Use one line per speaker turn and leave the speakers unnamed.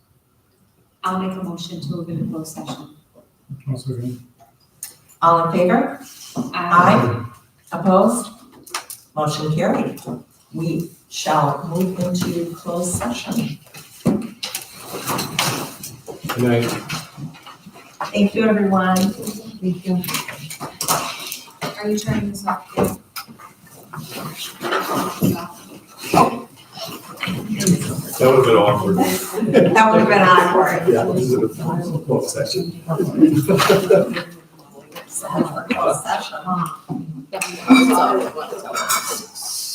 I'll make a motion to move into closed session.
I'll second.
All in favor?
I
Aye. Opposed? Motion carried. We shall move into closed session.
Good night.
Thank you, everyone. Thank you.
Are you turning this off?
That would have been awkward.
That would have been awkward.
Yeah, this is a closed session.
Closed session.
Yeah.